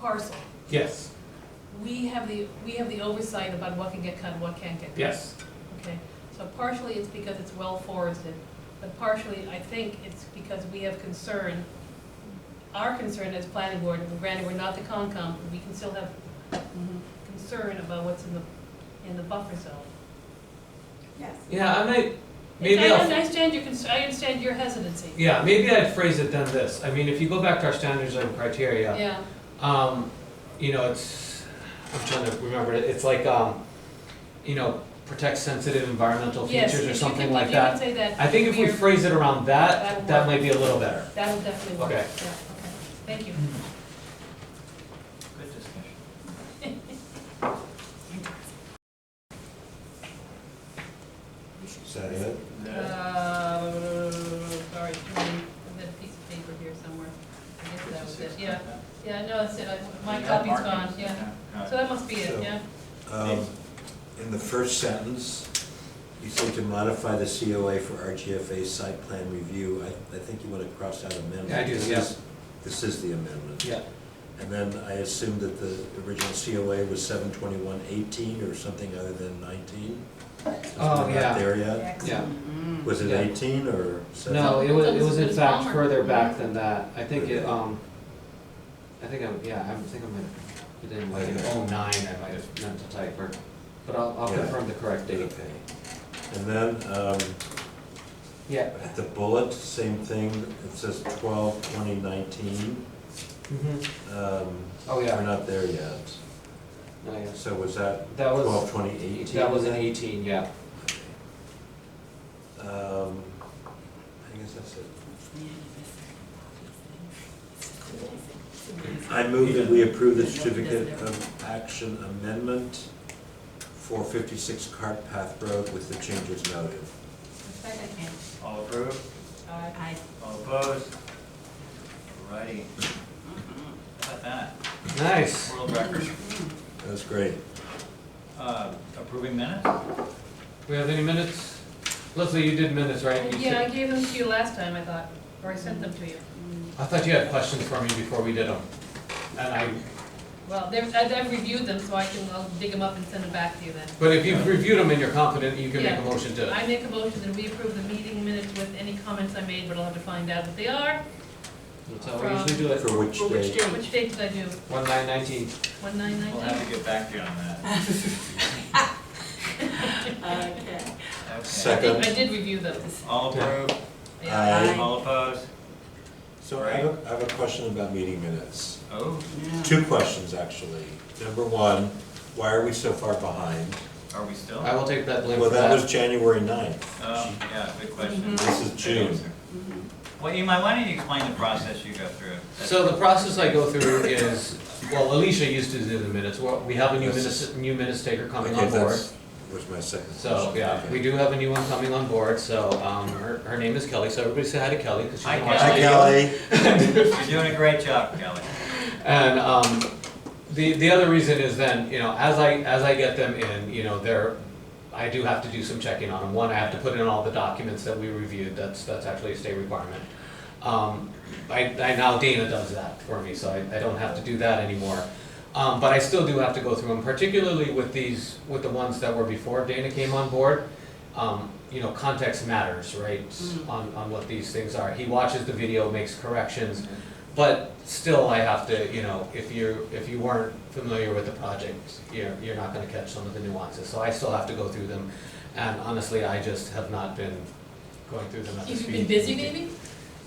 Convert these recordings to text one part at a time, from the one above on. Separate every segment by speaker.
Speaker 1: parcel,
Speaker 2: Yes,
Speaker 1: we have the, we have the oversight about what can get cut, and what can't get cut.
Speaker 2: yes,
Speaker 1: Okay, so partially it's because it's well forested, but partially, I think it's because we have concern, our concern as planning board, and granted, we're not the Concom, but we can still have concern about what's in the, in the buffer zone.
Speaker 3: Yes.
Speaker 2: yeah, I might,
Speaker 1: It's-
Speaker 2: maybe
Speaker 1: I
Speaker 2: I'll,
Speaker 1: understand your concern, I understand your hesitancy.
Speaker 2: yeah, maybe I'd phrase it then this, I mean, if you go back to our standards and criteria,
Speaker 1: Yeah,
Speaker 2: um, you know, it's, I'm trying to remember it, it's like, um, you know, protect sensitive environmental
Speaker 1: yes,
Speaker 2: features
Speaker 1: if
Speaker 2: or
Speaker 1: you
Speaker 2: something
Speaker 1: could-
Speaker 2: like
Speaker 1: if you could
Speaker 2: that.
Speaker 1: say that.
Speaker 2: I think if we
Speaker 1: we're-
Speaker 2: phrase it around
Speaker 1: That
Speaker 2: that,
Speaker 1: will
Speaker 2: that
Speaker 1: work.
Speaker 2: might be a little better.
Speaker 1: That'll definitely work, yeah,
Speaker 2: Okay.
Speaker 1: okay, thank you.
Speaker 4: Good discussion.
Speaker 5: Is that it?
Speaker 1: Uh, sorry, that piece of paper here somewhere, I guess that was it, yeah. Yeah, no, that's it, I- my
Speaker 4: Yeah,
Speaker 1: copy's
Speaker 4: markings.
Speaker 1: gone, yeah.
Speaker 4: Got
Speaker 1: So
Speaker 4: it.
Speaker 1: that must be it,
Speaker 5: So-
Speaker 1: yeah.
Speaker 5: Um, In the first sentence, you say to modify the COA for RGFA site plan review. I, I think you want to cross out amendment.
Speaker 2: Yeah, I do,
Speaker 5: This
Speaker 2: yeah.
Speaker 5: is- This is the amendment.
Speaker 2: Yeah,
Speaker 5: And then I assume that the original COA was seven twenty-one eighteen or something other than nineteen?
Speaker 2: Oh, yeah.
Speaker 5: Not there yet?
Speaker 2: yeah,
Speaker 5: Was it
Speaker 2: Yeah.
Speaker 5: eighteen or? seven?
Speaker 2: no, it was, it was in
Speaker 1: It's
Speaker 2: fact
Speaker 1: Palmer.
Speaker 2: further back than that, I think it, um, I think I'm, yeah, I think I'm gonna, I didn't, like, in oh nine, I might have meant to type, or, but I'll, I'll
Speaker 5: Yeah.
Speaker 2: confirm the correct date.
Speaker 5: Okay. And then, um,
Speaker 2: Yeah.
Speaker 5: at the bullet, same thing, it says twelve twenty nineteen.
Speaker 2: Mm-hmm.
Speaker 5: Um,
Speaker 2: Oh, yeah.
Speaker 5: We're not there yet.
Speaker 2: Oh, yes.
Speaker 5: So was that
Speaker 2: That was-
Speaker 5: twelve twenty eighteen?
Speaker 2: That was an eighteen, yeah.
Speaker 5: Um, I guess that's it. I move that we approve the certificate of action amendment for fifty-six Cart Path Road with the changes noted.
Speaker 1: Second.
Speaker 4: All approved?
Speaker 3: I,
Speaker 4: All opposed? Alrighty. How about that?
Speaker 2: Nice.
Speaker 4: World record.
Speaker 5: That's great.
Speaker 4: Uh, Approving minutes?
Speaker 2: We have any minutes? Leslie, you did minutes, right? You
Speaker 1: Oh, Yeah, I
Speaker 2: said-
Speaker 1: gave them to you last time, I thought, or I sent them to you.
Speaker 2: I thought you had questions for me before we did them. And I,
Speaker 1: Well, they've, I've I've reviewed them, so I can, I'll dig them up and send them back to you then.
Speaker 2: but if you've reviewed them and you're confident, you can make a
Speaker 1: Yeah.
Speaker 2: motion to.
Speaker 1: I make a motion that we approve the meeting minutes with any comments I made, but I'll have to find out what they are.
Speaker 2: That's how we usually do it.
Speaker 5: For which
Speaker 3: For which
Speaker 5: day?
Speaker 3: day?
Speaker 1: Which date did I do?
Speaker 2: One nine nineteen.
Speaker 1: One nine
Speaker 4: We'll have
Speaker 1: nineteen?
Speaker 4: to get back to you on that.
Speaker 3: Okay.
Speaker 4: Okay.
Speaker 1: I
Speaker 5: Second.
Speaker 1: did, I did review them,
Speaker 4: All approved?
Speaker 1: yeah.
Speaker 3: Aye.
Speaker 4: All opposed?
Speaker 5: So I have, a I have a question about meeting minutes.
Speaker 4: Oh,
Speaker 5: Two questions, actually. Number one, why are we so far behind?
Speaker 4: are we still?
Speaker 2: I will take that blame
Speaker 5: Well,
Speaker 2: for
Speaker 5: that was
Speaker 2: that.
Speaker 5: January ninth.
Speaker 4: Oh, yeah, good
Speaker 1: Mm-hmm.
Speaker 4: question.
Speaker 5: This is June.
Speaker 4: Well, Imai, why don't you explain the process you go through?
Speaker 2: So the process I go through is, well, Alicia used to do the minutes. Well, We have a new minutes, new minutes taker coming
Speaker 5: Okay,
Speaker 2: on board.
Speaker 5: that's- Was my second question.
Speaker 2: So, yeah,
Speaker 5: Okay.
Speaker 2: we do have a new one coming on board, so, um, her, her name is Kelly, so everybody say hi to Kelly, because she's
Speaker 4: Hi,
Speaker 2: on
Speaker 4: Kelly.
Speaker 5: Hi, Kelly.
Speaker 4: You're doing a great job, Kelly.
Speaker 2: And um, the the other reason is then you know as I as I get them in, you know, they're I do have to do some checking on them. One, I have to put in all the documents that we reviewed. That's that's actually a state requirement. Um, I, I now Dana does that for me, so I, I don't have to do that anymore. Um, but I still do have to go through them, particularly with these with the ones that were before Dana came on board. Um, you know, context matters, right?
Speaker 1: Mm-hmm.
Speaker 2: On on what these things are. He watches the video, makes corrections. But still, I have to, you know, if you're, if you weren't familiar with the project, you're, you're not gonna catch some of the nuances, so I still have to go through them. And honestly, I just have not been going through them at the
Speaker 1: You've
Speaker 2: speed.
Speaker 1: been busy maybe?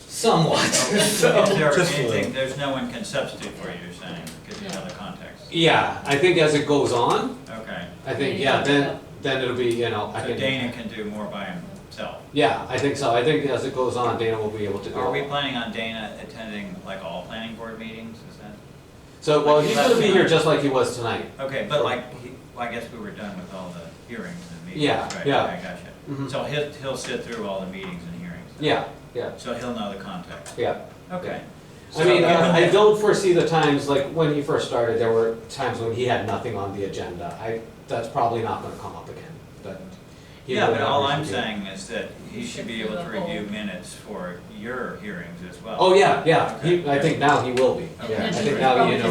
Speaker 2: Somewhat,
Speaker 4: Is
Speaker 2: so.
Speaker 4: there
Speaker 5: just a
Speaker 4: anything,
Speaker 5: little.
Speaker 4: there's no one can substitute for you, you're saying, because you know the context.
Speaker 2: Yeah, I think as it goes on,
Speaker 4: Okay,
Speaker 2: I
Speaker 1: Then
Speaker 2: think,
Speaker 1: you
Speaker 2: yeah,
Speaker 1: have to
Speaker 2: then,
Speaker 1: go.
Speaker 2: then it'll be, you know, I
Speaker 4: so
Speaker 2: can.
Speaker 4: Dana can do more by himself.
Speaker 2: Yeah, I think so, I think as it goes on, Dana will be able to do
Speaker 4: Are we
Speaker 2: it.
Speaker 4: planning on Dana attending like all planning board meetings, is that?
Speaker 2: So, well, he's gonna be here
Speaker 4: Last-
Speaker 2: just like he was tonight.
Speaker 4: Okay, but like, he- well, I guess we were done with all the hearings and meetings,
Speaker 2: Yeah,
Speaker 4: right?
Speaker 2: yeah.
Speaker 4: I gotcha.
Speaker 2: Mhm.
Speaker 4: So he'll, he'll sit through all the meetings and hearings? then?
Speaker 2: Yeah, yeah,
Speaker 4: So he'll know the context,
Speaker 2: yeah.
Speaker 4: okay.
Speaker 2: I mean, uh,
Speaker 4: So given
Speaker 2: I
Speaker 4: that-
Speaker 2: don't foresee the times, like, when he first started, there were times when he had nothing on the agenda. I, that's probably not gonna come up again, but. he
Speaker 4: Yeah,
Speaker 2: will
Speaker 4: but
Speaker 2: have
Speaker 4: all
Speaker 2: reason
Speaker 4: I'm
Speaker 2: to.
Speaker 4: saying is that he
Speaker 1: You
Speaker 4: should
Speaker 1: should
Speaker 4: be
Speaker 1: do
Speaker 4: able
Speaker 1: the
Speaker 4: to review
Speaker 1: whole-
Speaker 4: minutes for your hearings as well.
Speaker 2: Oh, yeah, yeah,
Speaker 4: Okay.
Speaker 2: he, I think now he will be,
Speaker 4: Okay.
Speaker 2: yeah, I
Speaker 1: And
Speaker 2: think
Speaker 1: he
Speaker 2: now,
Speaker 1: probably
Speaker 2: you know.